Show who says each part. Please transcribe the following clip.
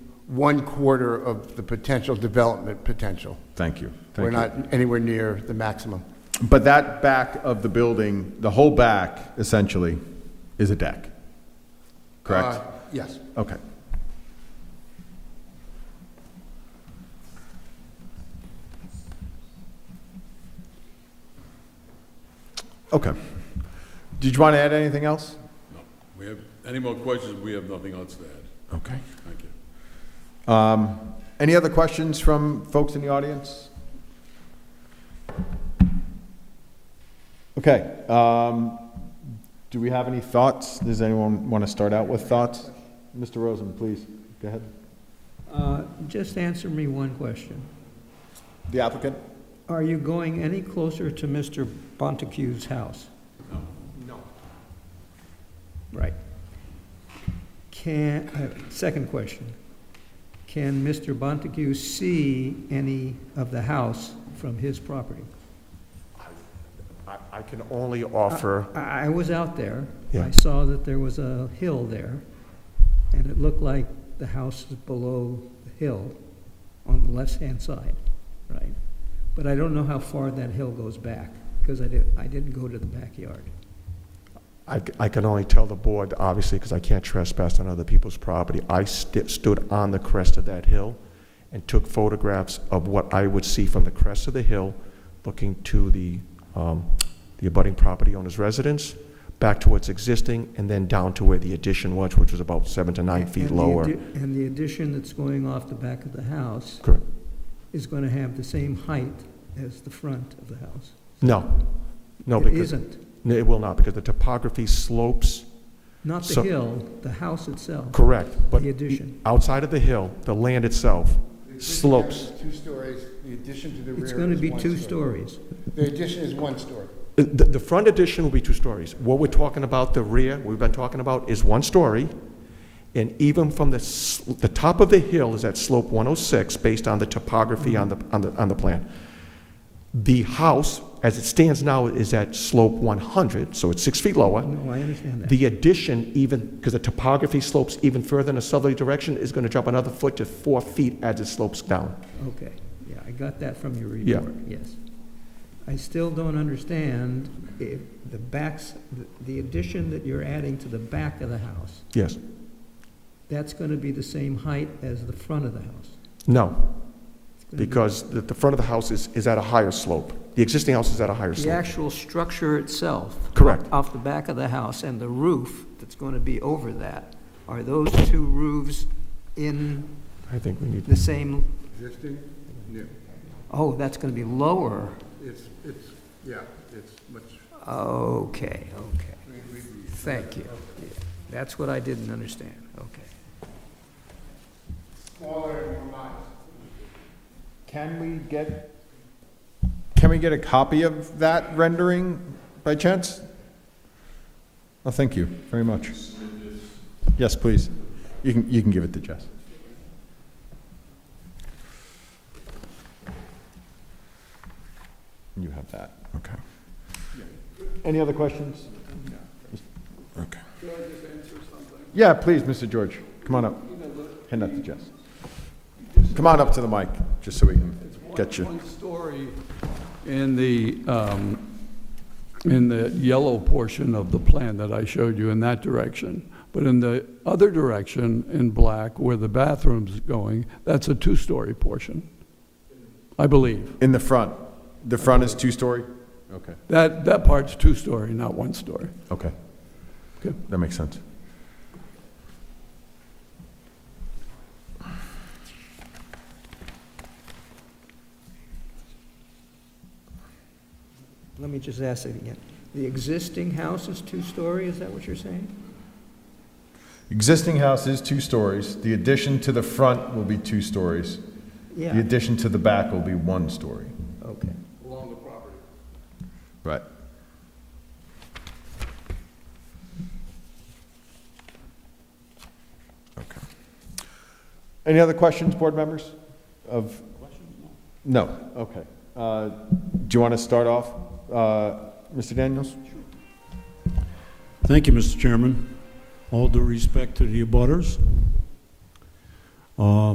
Speaker 1: one quarter of the potential development potential.
Speaker 2: Thank you. Thank
Speaker 1: We're
Speaker 2: you.
Speaker 1: not anywhere near the maximum.
Speaker 2: But that back of the building, the whole back essentially, is a deck. Correct?
Speaker 1: Uh, Yes.
Speaker 2: Okay. Okay. Did you want to add anything else?
Speaker 3: We have, any more questions? We have nothing else to add.
Speaker 2: Okay.
Speaker 3: Thank you.
Speaker 2: Any other questions from folks in the audience? Okay, um, do we have any thoughts? Does anyone want to start out with thoughts? Mr. Rosen, please, go ahead.
Speaker 4: Uh, Just answer me one question.
Speaker 2: The applicant?
Speaker 4: Are you going any closer to Mr. Bontecue's house? No. Right. Can, uh, second question. Can Mr. Bonteque see any of the house from his property?
Speaker 5: I- I can only offer,
Speaker 4: I I was out there.
Speaker 5: Yeah.
Speaker 4: I saw that there was a hill there, and it looked like the house is below the hill on the left-hand side, right? But I don't know how far that hill goes back, because I didn't, I didn't go to the backyard.
Speaker 5: I c- I can only tell the board, obviously, because I can't trespass on other people's property. I sti- stood on the crest of that hill and took photographs of what I would see from the crest of the hill, looking to the, um, the abutting property owner's residence, back to what's existing, and then down to where the addition was, which was about seven to nine feet
Speaker 4: And the
Speaker 5: lower.
Speaker 4: addi- And the addition that's going off the back of the house
Speaker 5: Correct.
Speaker 4: is going to have the same height as the front of the house.
Speaker 5: No, no,
Speaker 4: It
Speaker 5: because,
Speaker 4: isn't.
Speaker 5: No, it will not, because the topography slopes,
Speaker 4: Not the
Speaker 5: So-
Speaker 4: hill, the house itself,
Speaker 5: correct, but
Speaker 4: the addition.
Speaker 5: outside of the hill, the land itself slopes.
Speaker 1: Two stories, the addition to the rear
Speaker 4: It's going to
Speaker 1: is
Speaker 4: be
Speaker 1: one
Speaker 4: two
Speaker 1: story.
Speaker 4: stories.
Speaker 1: The addition is one story.
Speaker 5: The, the front addition will be two stories. What we're talking about, the rear, we've been talking about, is one story. And even from the, s- the top of the hill is at slope 106, based on the topography on the, on the, on the plan. The house, as it stands now, is at slope 100, so it's six feet lower.
Speaker 4: No, I understand that.
Speaker 5: The addition even, because the topography slopes even further in a southerly direction, is going to drop another foot to four feet as it slopes down.
Speaker 4: Okay, yeah, I got that from your
Speaker 5: Yeah.
Speaker 4: report, yes. I still don't understand if the backs, the addition that you're adding to the back of the house,
Speaker 5: Yes.
Speaker 4: that's going to be the same height as the front of the house.
Speaker 5: No,
Speaker 4: It's gonna be-
Speaker 5: because the, the front of the house is, is at a higher slope. The existing house is at a higher
Speaker 4: The
Speaker 5: slope.
Speaker 4: actual structure itself.
Speaker 5: Correct.
Speaker 4: Off the back of the house and the roof that's going to be over that, are those two roofs in
Speaker 5: I think we need,
Speaker 4: the same,
Speaker 1: Existing? New.
Speaker 4: oh, that's going to be lower?
Speaker 1: It's, it's, yeah, it's much
Speaker 4: Okay, okay. Thank you. Yeah, That's what I didn't understand, okay.
Speaker 1: smaller and more modest.
Speaker 2: Can we get? Can we get a copy of that rendering by chance? Well, thank you very much. Yes, please. You can, you can give it to Jess. You have that, okay. Any other questions? Okay. Yeah, please, Mr. George, come on up. Hand that to Jess. Come on up to the mic, just so we can get you.
Speaker 6: One story in the, um, in the yellow portion of the plan that I showed you in that direction. But in the other direction, in black, where the bathroom's going, that's a two-story portion, I believe.
Speaker 2: In the front. The front is two-story? Okay.
Speaker 6: That, that part's two-story, not one-story.
Speaker 2: Okay.
Speaker 6: Okay.
Speaker 2: That makes sense.
Speaker 4: Let me just ask it again. The existing house is two-story, is that what you're saying?
Speaker 2: Existing house is two stories. The addition to the front will be two stories. The
Speaker 4: Yeah,
Speaker 2: addition to the back will be one story.
Speaker 4: okay.
Speaker 2: Right. Okay. Any other questions, board members? Of? No. Okay. Uh, Do you want to start off, uh, Mr. Daniels?
Speaker 7: Thank you, Mr. Chairman. All due respect to the abutters. uh,